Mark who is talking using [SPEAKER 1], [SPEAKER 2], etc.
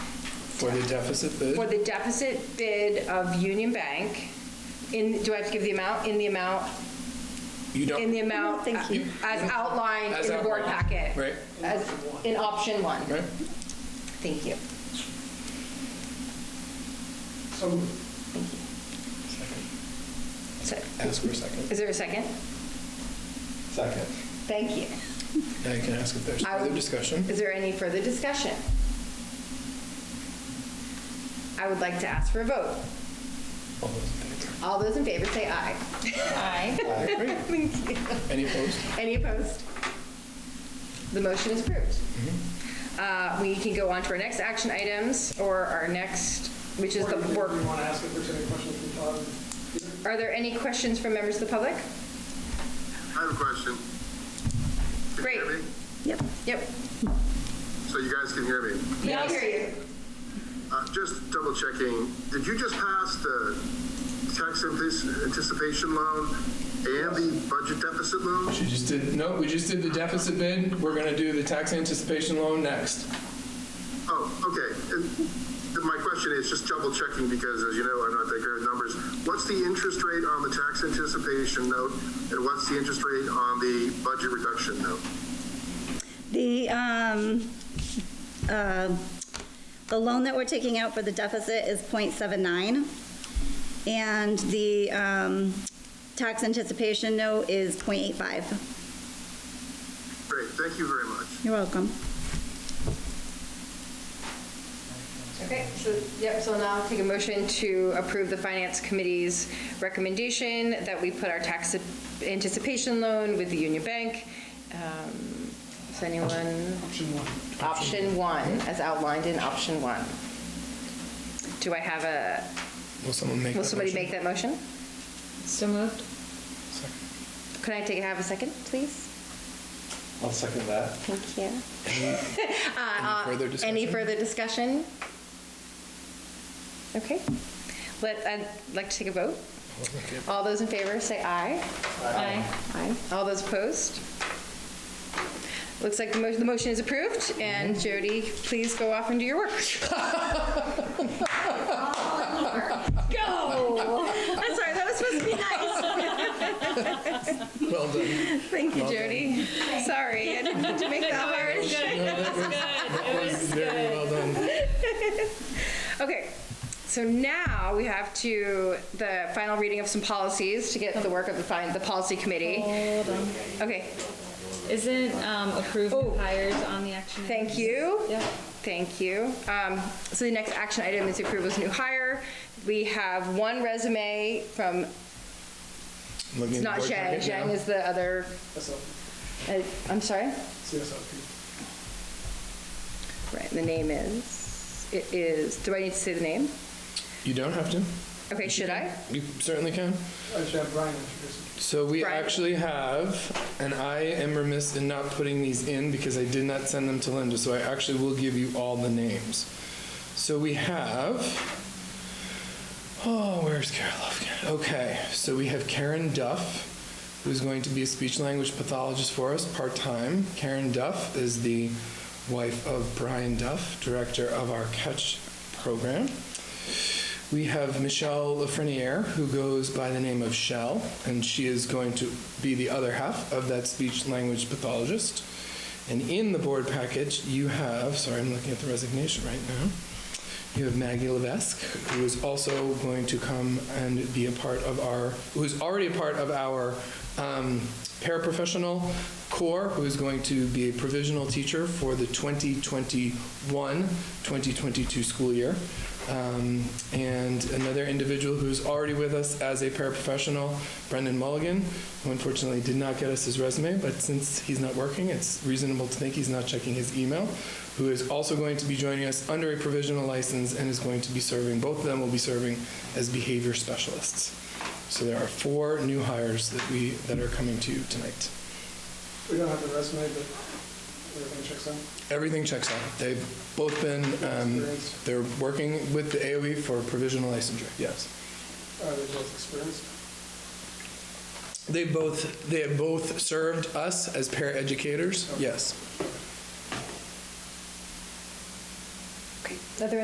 [SPEAKER 1] For the deficit
[SPEAKER 2] for
[SPEAKER 1] bid?
[SPEAKER 2] the deficit bid of Union Bank, in, do I have to give the amount? In the amount,
[SPEAKER 1] You
[SPEAKER 2] in the
[SPEAKER 1] don't,
[SPEAKER 2] amount,
[SPEAKER 3] thank you.
[SPEAKER 2] as outlined
[SPEAKER 1] As
[SPEAKER 2] in the board
[SPEAKER 1] outlined,
[SPEAKER 2] packet.
[SPEAKER 1] right.
[SPEAKER 2] As, in option one.
[SPEAKER 1] right?
[SPEAKER 2] Thank you. So,
[SPEAKER 1] Ask for a second.
[SPEAKER 2] is there a second?
[SPEAKER 1] Second.
[SPEAKER 2] Thank you.
[SPEAKER 1] Now you can ask if there's
[SPEAKER 2] I-
[SPEAKER 1] further discussion.
[SPEAKER 2] Is there any further discussion? I would like to ask for a vote.
[SPEAKER 1] All those in favor?
[SPEAKER 2] All those in favor say aye. Aye.
[SPEAKER 1] Aye, great.
[SPEAKER 2] Thank you.
[SPEAKER 1] Any opposed?
[SPEAKER 2] Any opposed? The motion is approved. Uh, We can go on to our next action items, or our next, which is the work.
[SPEAKER 4] We want to ask if there's any questions from Todd.
[SPEAKER 2] Are there any questions from members of the public?
[SPEAKER 5] I have a question. Can you hear
[SPEAKER 2] Great.
[SPEAKER 5] me?
[SPEAKER 3] Yep.
[SPEAKER 2] Yep.
[SPEAKER 5] So you guys can hear me.
[SPEAKER 2] Yeah, I hear you.
[SPEAKER 5] Uh, Just double checking, did you just pass the tax antici- anticipation loan and the budget deficit loan?
[SPEAKER 1] She just did, no, we just did the deficit bid. We're gonna do the tax anticipation loan next.
[SPEAKER 5] Oh, okay. And th- my question is just double checking because as you know, I'm not that great at numbers. What's the interest rate on the tax anticipation note and what's the interest rate on the budget reduction note?
[SPEAKER 3] The, um, um, the loan that we're taking out for the deficit is 0.79, and the um, tax anticipation note is 0.85.
[SPEAKER 5] Great, thank you very much.
[SPEAKER 3] You're welcome.
[SPEAKER 2] Okay, so, yep, so now I'll take a motion to approve the Finance Committee's recommendation that we put our tax anticipation loan with the Union Bank. Um, Is anyone?
[SPEAKER 4] Option one.
[SPEAKER 2] Option one, as outlined in option one. Do I have a,
[SPEAKER 1] Will someone make that
[SPEAKER 2] will
[SPEAKER 1] motion?
[SPEAKER 2] somebody make that motion?
[SPEAKER 6] So moved.
[SPEAKER 2] Could I take, have a second, please?
[SPEAKER 7] I'll second that.
[SPEAKER 2] Thank you. Uh,
[SPEAKER 1] Any further
[SPEAKER 2] Any
[SPEAKER 1] discussion?
[SPEAKER 2] further discussion? Okay. Let, I'd like to take a vote. All those in favor, say aye.
[SPEAKER 6] Aye.
[SPEAKER 2] Aye. All those opposed? Looks like the motion, the motion is approved, and
[SPEAKER 1] Mm-hmm.
[SPEAKER 2] Jody, please go off and do your work. Go! I'm sorry, that was supposed to be nice.
[SPEAKER 1] Well done.
[SPEAKER 2] Thank you,
[SPEAKER 1] Well done.
[SPEAKER 2] Jody. Sorry, I didn't mean to make that hard.
[SPEAKER 1] That was Very well done.
[SPEAKER 2] Okay, so now we have to, the final reading of some policies to get the work of the, fin- the policy committee.
[SPEAKER 6] Hold on.
[SPEAKER 2] Okay,
[SPEAKER 6] Isn't um, approved
[SPEAKER 2] Oh.
[SPEAKER 6] hires on the action?
[SPEAKER 2] thank
[SPEAKER 6] items?
[SPEAKER 2] you.
[SPEAKER 6] Yep.
[SPEAKER 2] Thank you. Um, So the next action item is approval's new hire. We have one resume from,
[SPEAKER 1] Looking
[SPEAKER 2] it's
[SPEAKER 1] at the
[SPEAKER 2] not
[SPEAKER 1] board
[SPEAKER 2] Zhang,
[SPEAKER 1] packet now.
[SPEAKER 2] Zhang is the other, uh, I'm sorry?
[SPEAKER 4] CSLP.
[SPEAKER 2] Right, the name is, it is, do I need to say the name?
[SPEAKER 1] You don't have to.
[SPEAKER 2] Okay, should I?
[SPEAKER 1] You certainly can.
[SPEAKER 4] I should have Brian introduce it.
[SPEAKER 1] So we
[SPEAKER 2] Right.
[SPEAKER 1] actually have, and I am remiss in not putting these in because I did not send them to Linda, so I actually will give you all the names. So we have, oh, where's Karen Lufkin? Okay, so we have Karen Duff, who's going to be a speech language pathologist for us part time. Karen Duff is the wife of Brian Duff, director of our Catch program. We have Michelle Lafreniere, who goes by the name of Shell, and she is going to be the other half of that speech language pathologist. And in the board package, you have, sorry, I'm looking at the resignation right now. You have Maggie Levesque, who is also going to come and be a part of our, who is already a part of our um, paraprofessional core, who is going to be a provisional teacher for the 2021-2022 school year. Um, and another individual who's already with us as a paraprofessional, Brendan Mulligan, who unfortunately did not get us his resume, but since he's not working, it's reasonable to think he's not checking his email, who is also going to be joining us under a provisional license and is going to be serving, both of them will be serving as behavior specialists. So there are four new hires that we, that are coming to you tonight.
[SPEAKER 4] We don't have the resume, but everything checks out.
[SPEAKER 1] Everything checks out. They've both been, um,
[SPEAKER 4] Experience.
[SPEAKER 1] they're working with the AOE for provisional licensure, yes.
[SPEAKER 4] Are they uh, both experienced?
[SPEAKER 1] They both, they have both served us as paraeducators, yes.